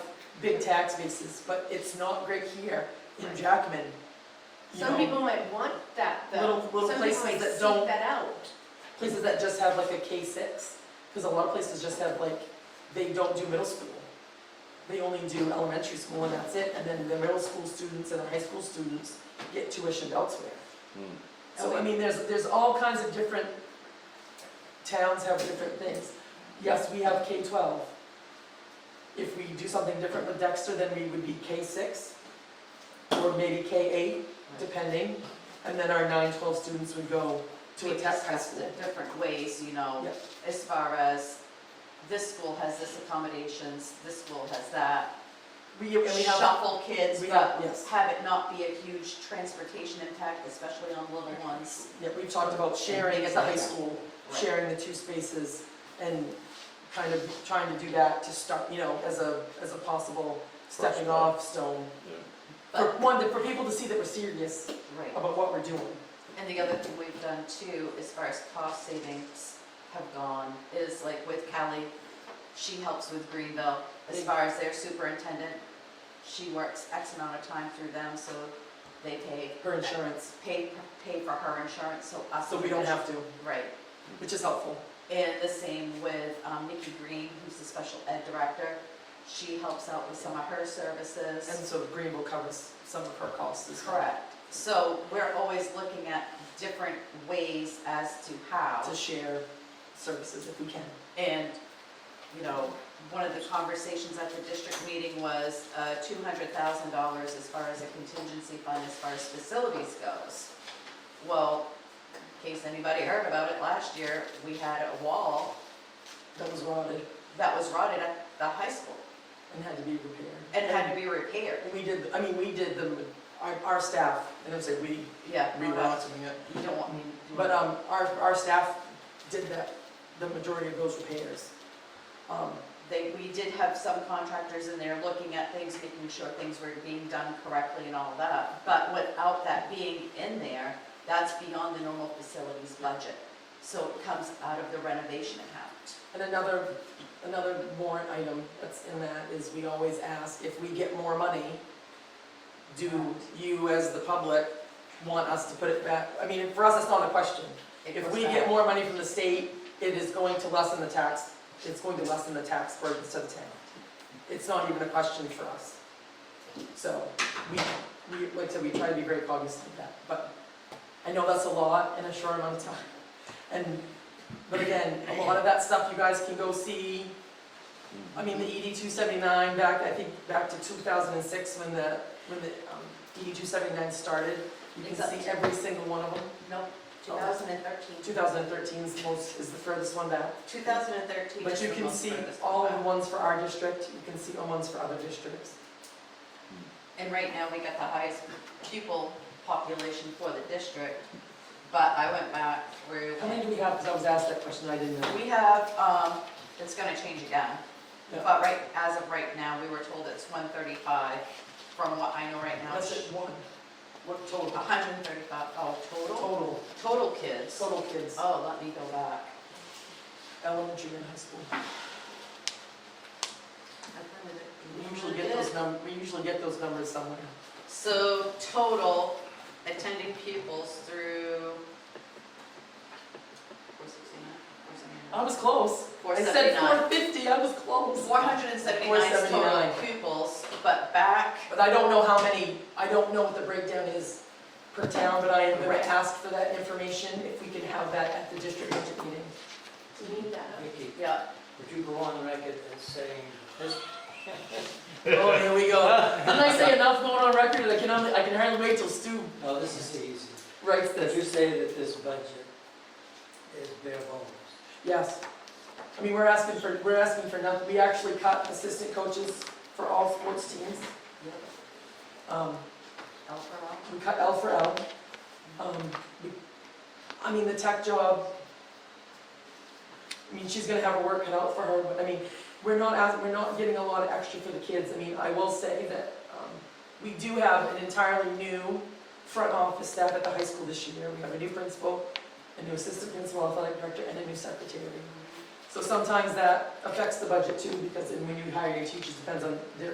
big tax bases, but it's not great here in Jackman. You Some know, people might want that though. Little- little places Some people that might don't- seek that out. places that just have like a K six, because a lot of places just have like, they don't do middle school. They only do elementary school and that's it, and then the middle school students and the high school students get tuitioned elsewhere. Hmm. So, I mean, there's, there's all kinds of different, towns have different things. Yes, we have K twelve. If we do something different with Dexter, then we would be K six, or maybe K eight, depending. And then our nine, twelve students would go to a We test high discussed school. it different ways, you know, Yep. as far as this school has this accommodations, this school has that. We, and we have, Shuffle kids, we but have- yes. have it not be a huge transportation impact, especially on little ones. yeah, we've talked about sharing at the high school, Right. sharing the two spaces and kind of trying to do that to start, you know, as a, as a possible stepping step. off stone. Yeah. For But, one, for people to see that we're serious right. about what we're doing. And the other thing we've done too, as far as cost savings have gone, is like with Kelly, she helps with Greenville, as far as their superintendent, she works X amount of time through them, so they pay. Her insurance, Pay, pay for her insurance, so us. so we don't have to, Right, which is helpful. and the same with um, Nikki Green, who's the special ed director, she helps out with some of her services. And so Greenville covers some of her costs as well. Correct, so we're always looking at different ways as to how. To share services if we can. And, you know, one of the conversations at the district meeting was uh, two hundred thousand dollars as far as a contingency fund, as far as facilities goes. Well, in case anybody heard about it, last year, we had a wall That was rotted that was rotted at the high school and had to be repaired. and had to be repaired. And We did, I mean, we did the, our, our staff, and I'm saying we, Yeah. we were not doing it. You don't want me to. But, um, our, our staff did that, the majority of those repairs. Um, They, we did have some contractors in there looking at things, making sure things were being done correctly and all that. But without that being in there, that's beyond the normal facilities budget. So it comes out of the renovation account. And another, another warrant item that's in that is we always ask, if we get more money, do you as the public want us to put it back? I mean, for us, it's not a question. It If goes we back. get more money from the state, it is going to lessen the tax, it's going to lessen the tax burden to the town. It's not even a question for us. So, we, we, like I said, we try to be very cognizant of that, but I know that's a lot in a short amount of time. And, but again, a lot of that stuff you guys can go see. I mean, the ED two seventy-nine back, I think, back to two thousand and six when the, when the, um, ED two seventy-nine started. You can Exactly. see every single one of them. Nope, 2013. 2013's most, is the furthest one back. 2013. But is you the can most see furthest all one the back. ones for our district, you can see all ones for other districts. And right now, we got the highest pupil population for the district. But I went back through. How many do we have, because I was asked that question, I didn't know. We have, um, it's gonna change again, Yeah. but right, as of right now, we were told it's one thirty-five, from what I know right now, That's it's it, one, what total? hundred and thirty-five, oh, total, Total, total kids. total kids, Oh, let me go back. elementary and high school. We usually get those num, we usually get those numbers somewhere. So total attending pupils through. I was close. Oh, I said 450, 479. I was close. Four hundred and seventy-nine total 479. pupils, but back, But I don't know how many, I don't know what the breakdown is per town, but I am going Right. to ask for that information, if we can have that at the district budget meeting. We need that. Vicky, yeah, would you go on record as saying this Oh, here we go. Didn't I say enough going on record? I can only, I can hardly wait till Stu No, this is easy. writes Did you this. say that this budget is bare bones? Yes. I mean, we're asking for, we're asking for nothing. We actually cut assistant coaches for all sports teams. Um, L for L. we cut L for L. Um, we- I mean, the tech job, I mean, she's gonna have her work cut out for her, but I mean, we're not asking, we're not getting a lot of extra for the kids. I mean, I will say that, um, we do have an entirely new front office staff at the high school this year. We have a new principal, a new assistant principal, athletic director, and a new secretary. So sometimes that affects the budget too, because then when you hire your teachers, depends on their